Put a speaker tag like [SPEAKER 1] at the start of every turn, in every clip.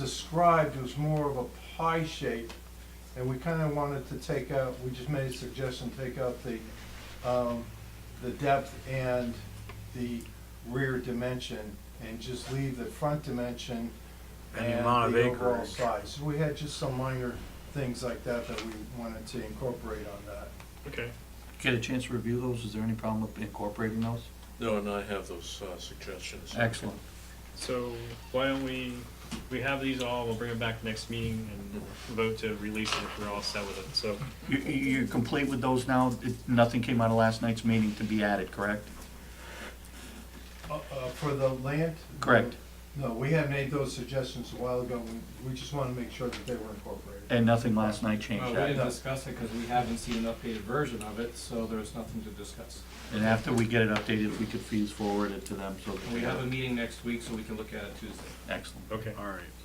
[SPEAKER 1] described, it was more of a pie shape, and we kinda wanted to take out, we just made a suggestion, take out the, um, the depth and the rear dimension, and just leave the front dimension
[SPEAKER 2] And the amount of
[SPEAKER 1] the overall
[SPEAKER 2] acreage.
[SPEAKER 1] size. So we had just some minor things like that that we wanted to incorporate on that.
[SPEAKER 3] Okay.
[SPEAKER 4] Get a chance to review those, is there any problem with incorporating those?
[SPEAKER 5] No, and I have those uh, suggestions.
[SPEAKER 4] Excellent.
[SPEAKER 3] So why don't we, we have these all, we'll bring them back next meeting and vote to release it if we're all set with it. So,
[SPEAKER 4] You, you- you're complete with those now, It- nothing came out of last night's meeting to be added, correct?
[SPEAKER 1] Uh, uh, For the land?
[SPEAKER 4] Correct.
[SPEAKER 1] No, we had made those suggestions a while ago, we, we just wanna make sure that they were incorporated.
[SPEAKER 4] And nothing last night
[SPEAKER 6] Well,
[SPEAKER 4] changed
[SPEAKER 6] we
[SPEAKER 4] that?
[SPEAKER 6] didn't discuss it because we haven't seen an updated version of it, so there's nothing to discuss.
[SPEAKER 4] And after we get it updated, we could fees forward it to them, so. that
[SPEAKER 6] And we have a meeting next week, so we can look at it Tuesday.
[SPEAKER 4] Excellent.
[SPEAKER 3] okay.
[SPEAKER 2] All right.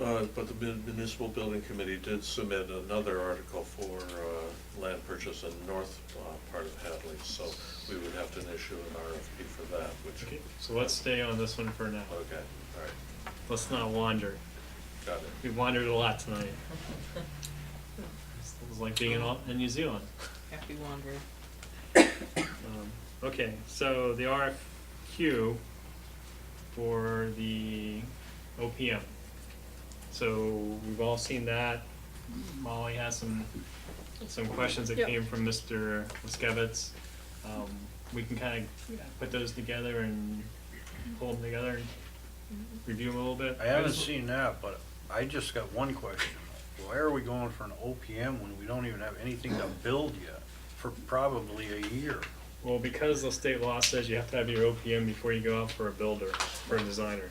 [SPEAKER 5] Uh, But the mun- municipal building committee did submit another article for uh, land purchase in the north uh, part of Hadley, so we would have to issue an RFP for that, which,
[SPEAKER 3] Okay, So let's stay on this one for now.
[SPEAKER 5] okay, all right,
[SPEAKER 3] Let's not wander.
[SPEAKER 5] got it.
[SPEAKER 3] We wandered a lot tonight. It was like being in, Au- in New Zealand.
[SPEAKER 7] Happy wanderer.
[SPEAKER 3] Um, Okay, so the RFQ for the OPM. So we've all seen that. Molly has some, some questions that
[SPEAKER 7] Yep.
[SPEAKER 3] came from Mr. Wiskevitz. Um, We can kind of put those together and pull them together and review them a little bit.
[SPEAKER 2] I haven't seen that, but I just got one question. Why are we going for an OPM when we don't even have anything to build yet for probably a year?
[SPEAKER 3] Well, because the state law says you have to have your OPM before you go out for a builder, for a designer.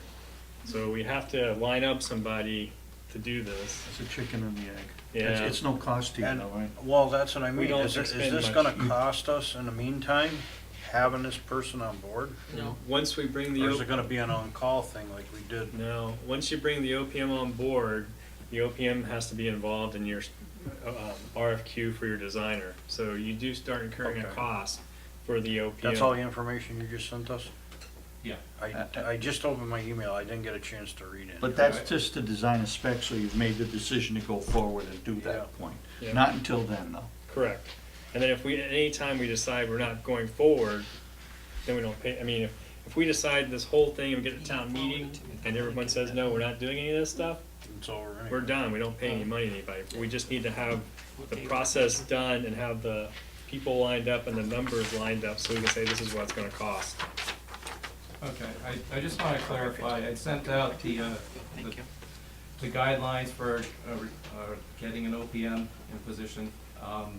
[SPEAKER 3] So we have to line up somebody to do this.
[SPEAKER 4] It's a chicken and the egg. It's,
[SPEAKER 3] Yeah.
[SPEAKER 4] it's no cost to you,
[SPEAKER 2] And-
[SPEAKER 4] though, right?
[SPEAKER 2] Well, that's what I mean.
[SPEAKER 3] don't
[SPEAKER 2] Is it- is
[SPEAKER 3] expend
[SPEAKER 2] this
[SPEAKER 3] much.
[SPEAKER 2] gonna cost us in the meantime, having this person on board?
[SPEAKER 3] Hmm.
[SPEAKER 7] No.
[SPEAKER 3] Once we bring the,
[SPEAKER 2] Or is it
[SPEAKER 3] O-
[SPEAKER 2] gonna be an on-call thing like we did?
[SPEAKER 3] no, once you bring the OPM on board, the OPM has to be involved in your uh, um, RFQ for your designer. So you do start incurring a
[SPEAKER 2] Okay.
[SPEAKER 3] cost for the OPM.
[SPEAKER 2] That's all the information you just sent us?
[SPEAKER 6] Yeah.
[SPEAKER 2] I, I just opened my email. I didn't get a chance to read it.
[SPEAKER 4] But that's just to design a spec, so you've made the decision to go forward and do
[SPEAKER 2] Yeah.
[SPEAKER 4] that point.
[SPEAKER 3] Yeah.
[SPEAKER 4] Not until then, though.
[SPEAKER 3] Correct. And then if we, at any time we decide we're not going forward, then we don't pay, I mean, if, if we decide this whole thing and we get to town meeting and everyone says, no, we're not doing any of this stuff,
[SPEAKER 2] It's over anyway.
[SPEAKER 3] we're done, we don't pay any money to anybody. We just need to have the process done and have the people lined up and the numbers lined up so we can say this is what it's gonna cost.
[SPEAKER 6] Okay, I, I just want to clarify, I sent out the, uh, the- the guidelines for uh, re- uh, getting an OPM in position. Um,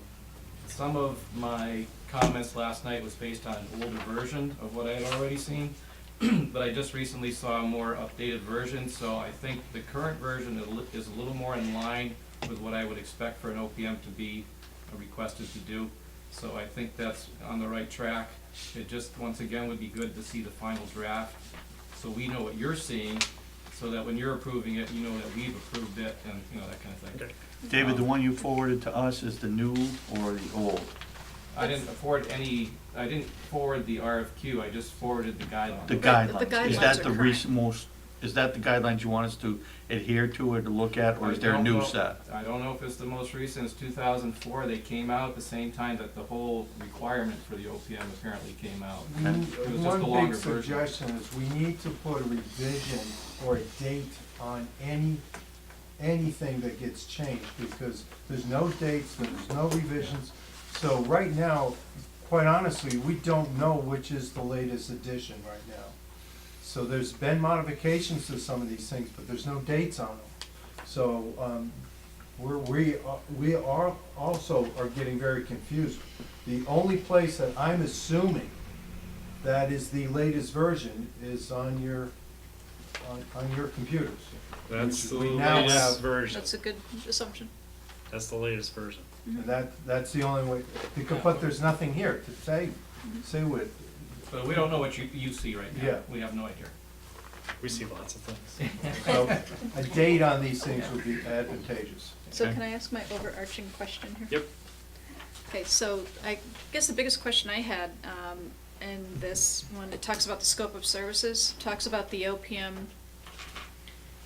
[SPEAKER 6] Some of my comments last night was based on an older version of what I had already seen, but I just recently saw a more updated version, so I think the current version is a li- is a little more in line with what I would expect for an OPM to be uh, requested to do. So I think that's on the right track. It just, once again, would be good to see the final draft, so we know what you're seeing, so that when you're approving it, you know that we've approved it, and, you know, that kind of thing.
[SPEAKER 3] Okay.
[SPEAKER 4] David, the one you forwarded to us is the new or the old?
[SPEAKER 6] I didn't afford any, I didn't forward the RFQ, I just forwarded the guidelines.
[SPEAKER 4] The
[SPEAKER 7] Right, the
[SPEAKER 4] guidelines, is
[SPEAKER 7] guidelines
[SPEAKER 4] that
[SPEAKER 7] are
[SPEAKER 4] the
[SPEAKER 7] current.
[SPEAKER 4] recent most, is that the guidelines you want us to adhere to or to look at, or is
[SPEAKER 6] I
[SPEAKER 4] there a
[SPEAKER 6] don't
[SPEAKER 4] new
[SPEAKER 6] know-
[SPEAKER 4] set?
[SPEAKER 6] I don't know if it's the most recent, it's two thousand four, they came out at the same time that the whole requirement for the OPM apparently came out.
[SPEAKER 1] We-
[SPEAKER 6] was just a
[SPEAKER 1] One
[SPEAKER 6] longer
[SPEAKER 1] big
[SPEAKER 6] version.
[SPEAKER 1] suggestion is we need to put a revision or a date on any, anything that gets changed, because there's no dates, there's no revisions. So right now, quite honestly, we don't know which is the latest edition right now. So there's been modifications to some of these things, but there's no dates on them. So, um, we're, we, are- we are, also are getting very confused. The only place that I'm assuming that is the latest version is on your, on, on your computers. Which
[SPEAKER 3] That's the
[SPEAKER 1] we now have-
[SPEAKER 3] latest version.
[SPEAKER 7] That's a good assumption.
[SPEAKER 3] That's the latest version.
[SPEAKER 1] And that, that's the only way, because, but there's nothing here to say, say with.
[SPEAKER 6] But we don't know what you, you see right now,
[SPEAKER 1] Yeah.
[SPEAKER 6] we have no idea.
[SPEAKER 3] We see lots of things.
[SPEAKER 1] So a date on these things would be advantageous.
[SPEAKER 7] So
[SPEAKER 4] Okay.
[SPEAKER 7] can I ask my overarching question here?
[SPEAKER 3] Yep.
[SPEAKER 7] Okay, so I guess the biggest question I had, um, in this one, it talks about the scope of services, talks about the OPM